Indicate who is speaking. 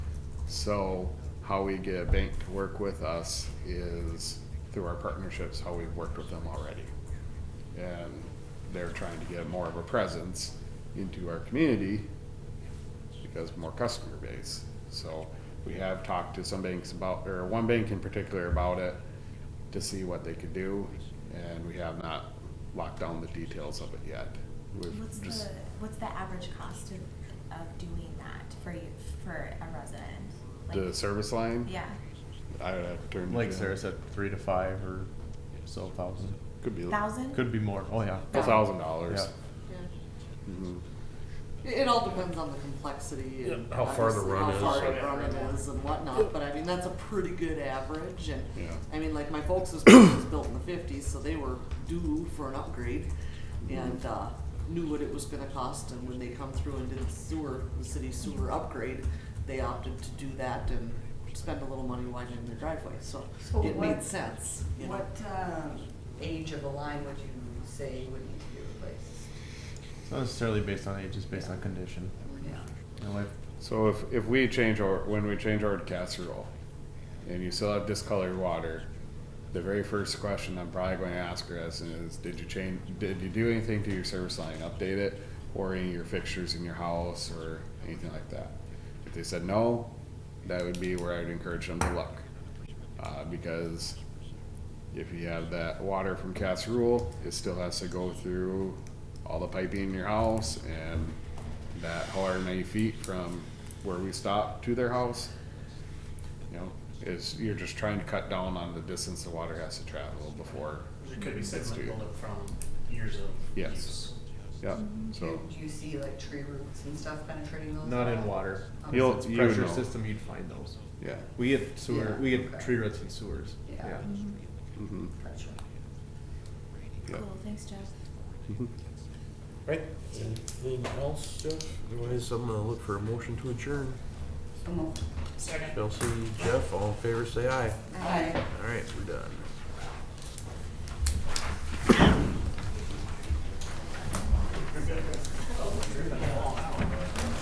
Speaker 1: So how we get a bank to work with us is through our partnerships, how we've worked with them already. And they're trying to get more of a presence into our community because more customer base. So we have talked to some banks about, or one bank in particular about it to see what they could do. And we have not locked down the details of it yet. We've
Speaker 2: What's
Speaker 1: just-
Speaker 2: the, what's the average cost of, of doing that for you, for a resident? Like-
Speaker 1: The service line?
Speaker 2: Yeah,
Speaker 1: I would have to turn. to
Speaker 3: Like
Speaker 1: Jim.
Speaker 3: Sarah said, three to five or so thousand.
Speaker 1: Could be.
Speaker 2: thousand?
Speaker 3: Could be more. Oh yeah.
Speaker 1: A thousand dollars.
Speaker 4: Yeah.
Speaker 1: Mhm.
Speaker 4: It, it all depends on the complexity and.
Speaker 5: Yeah, how far the
Speaker 4: obviously
Speaker 5: run
Speaker 4: How
Speaker 5: is.
Speaker 4: far the run it is and whatnot, but I mean, that's a pretty good average and,
Speaker 1: Yeah.
Speaker 4: I mean, like my folks' building was built in the fifties, so they were due for an upgrade. And, uh, knew what it was gonna cost and when they come through and did the sewer, the city sewer upgrade, they opted to do that and spend a little money widening their driveway, so
Speaker 6: So
Speaker 4: it
Speaker 6: what-
Speaker 4: made sense, you know.
Speaker 6: What um, age of a line would you say would need to be replaced?
Speaker 3: It's not necessarily based on age, it's based on condition. You know, like,
Speaker 1: So if, if we change our, when we change our casserole and you still have discolored water, the very first question I'm probably going to ask her is, is did you change, did you do anything to your service line, update it? Or any of your fixtures in your house or anything like that? If they said no, that would be where I'd encourage them to look. Uh, because if you have that water from casserole, it still has to go through all the piping in your house and that however many feet from where we stop to their house. You know, is you're just trying to cut down on the distance the water has to travel before.
Speaker 5: It could be
Speaker 1: it's
Speaker 5: sediment
Speaker 1: to-
Speaker 5: buildup from years of
Speaker 1: Yes.
Speaker 5: use.
Speaker 1: Yeah, so
Speaker 6: Do you see like tree roots and stuff penetrating those?
Speaker 3: Not in water.
Speaker 6: Um,
Speaker 1: You'll-
Speaker 3: It's
Speaker 1: you
Speaker 3: pressure
Speaker 1: know.
Speaker 3: system, you'd find those.
Speaker 1: yeah.
Speaker 3: We get sewer,
Speaker 6: Yeah,
Speaker 3: we get
Speaker 6: okay.
Speaker 3: tree roots and sewers.
Speaker 6: Yeah.
Speaker 1: mhm,
Speaker 6: Pressure.
Speaker 1: yeah.
Speaker 2: Cool, thanks, Jeff.
Speaker 7: Right, anything else, Jeff? Otherwise, I'm gonna look for a motion to adjourn.
Speaker 6: So moved.
Speaker 7: Chelsea, Jeff, all in favor, say aye.
Speaker 6: Aye.
Speaker 7: All right, we're done.